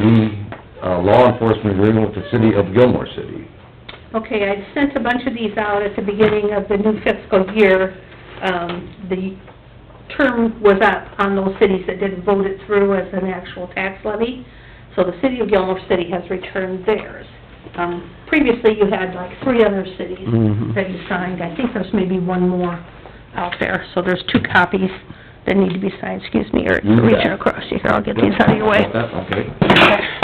AV, uh, law enforcement agreement with the city of Gilmore City. Okay, I sent a bunch of these out at the beginning of the new fiscal year. Um, the term was up on those cities that didn't vote it through as an actual tax levy. So the city of Gilmore City has returned theirs. Um, previously you had like three other cities that you signed. I think there's maybe one more out there. So there's two copies that need to be signed, excuse me, Eric, You bet. reaching across you here. I'll get these out of your way. Okay.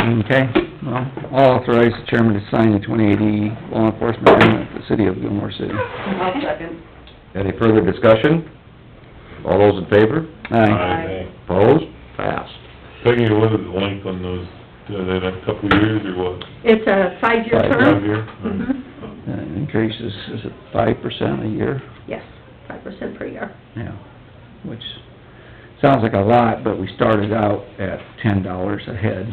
Okay, well, I'll authorize the chairman to sign the twenty eighty law enforcement agreement with the city of Gilmore City. I'll second. Any further discussion? All those in favor? Aye. Opposed? Passed. Peggy, what is the length on those, uh, that a couple of years or what? It's a five-year Five, term. Five year? Mhm. That Uh, increases, is it five percent a year? Yes, five percent per year. Yeah. Which sounds like a lot, but we started out at ten dollars a head,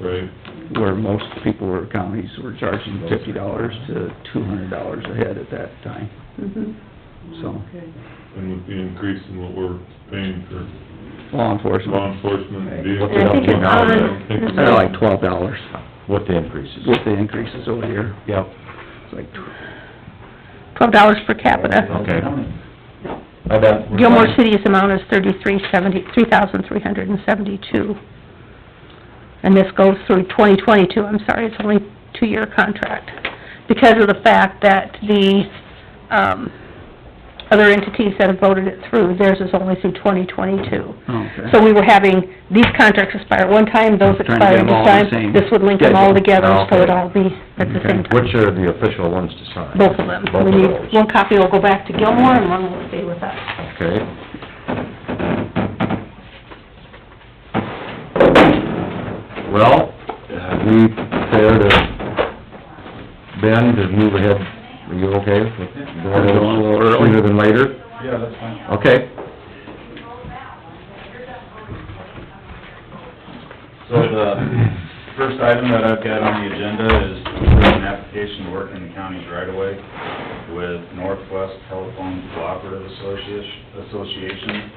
Right, where most people or counties were charging fifty dollars to two hundred dollars a head at that time, Mhm. so, and with the increase in what we're paying for law law enforcement. enforcement What's it vehicles. up to now? I don't think it's- They're like twelve dollars With the increases. with the increases over here, Yep. it's like tw- Twelve dollars per capita. Okay. I bet. Gilmore City's amount is thirty-three seventy, three thousand three hundred and seventy-two. And this goes through twenty twenty-two, I'm sorry, it's only two-year contract. Because of the fact that the, um, other entities that have voted it through, theirs is only through twenty twenty-two. okay. So we were having, these contracts expire at one time, those Trying to get expire at them all this the time. same This would link them all schedule. together, so Okay. it'd all be at the same time. Which are the official ones to sign? both of them. Both We of need, those. one copy will go back to Gilmore and one will stay with us. Okay. Well, have we prepared a, Ben, to move ahead, are you okay with going a little earlier than later? Yeah, that's fine. Okay. So the first item that I've got on the agenda is approving an application to work in the county's right of way with Northwest Telephone Cooperative Associ- Association.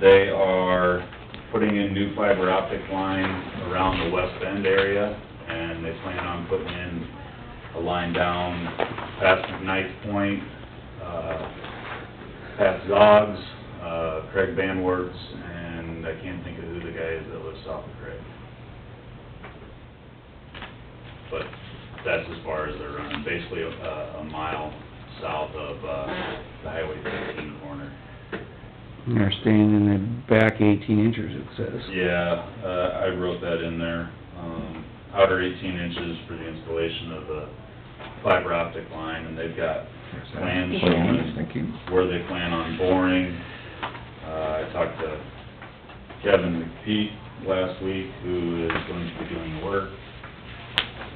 They are putting in new fiber optic line around the West Bend area, and they plan on putting in a line down past McKnight Point, uh, Pat Zoggs, uh, Craig Van Wertz, and I can't think of who the guy is that lives south of Craig. But that's as far as they're running, basically a, a mile south of, uh, the Highway fifteen corner. And They're staying in the back eighteen inches, it says. Yeah, uh, I wrote that in there, um, outer eighteen inches for the installation of the fiber optic line, and they've got plans showing where they plan on boring. Uh, I talked to Kevin McPeak last week, who is going to be doing the work.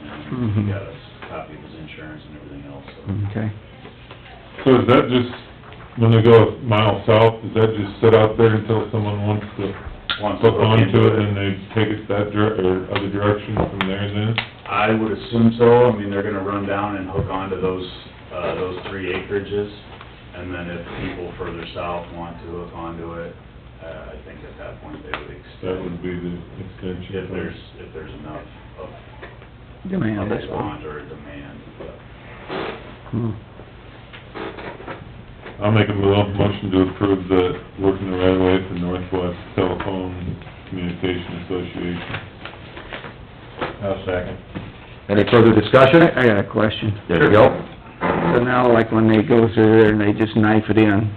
And Mhm. he got us a copy of his insurance and everything else, so. Okay. So is that just, when they go a mile south, is that just sit out there until someone wants to Once hook we're into onto it and they take it that dir, or other direction from there then? I would assume so, I mean, they're gonna run down and hook onto those, uh, those three acreages, and then if people further south want to hook onto it, uh, I think at that point they would That would extend, be the extension. if there's, if there's enough of Demand, a that's all. want or a demand, but Hmm. I'll make a mo- motion to approve the working the right way for Northwest Telephone Communication Association. I'll second. Any further discussion? I, I got a question. There you go. So now, like, when they go through there and they just knife it in,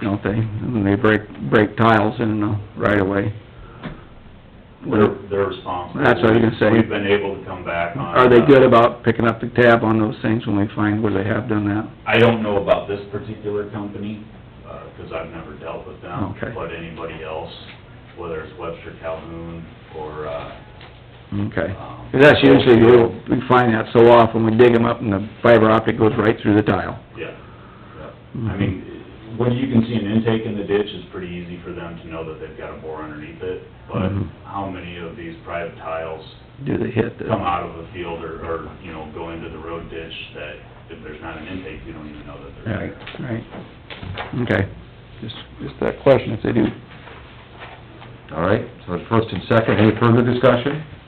don't they? And they break, break tiles in the right of way. They're, they're responsible. That's what I was gonna say. We've been able to come back on. Are they uh, good about picking up the tab on those things when we find where they have done that? I don't know about this particular company, uh, 'cause I've never dealt with them. Okay. But anybody else, whether it's Webster Calhoun or, uh, Okay. um... 'Cause that's usually, the little- we find that so often, we dig them up and the fiber optic goes right through the tile. Yeah, yeah. I mean, when you can see an intake in the ditch, it's pretty easy for them to know that they've got a bore underneath it. But Mhm. how many of these private tiles Do they hit the... come out of a field or, or, you know, go into the road ditch that if there's not an intake, you don't even know that they're Right, there? right. Okay, just, just that question, if they do All right, so it's first and second, any further discussion?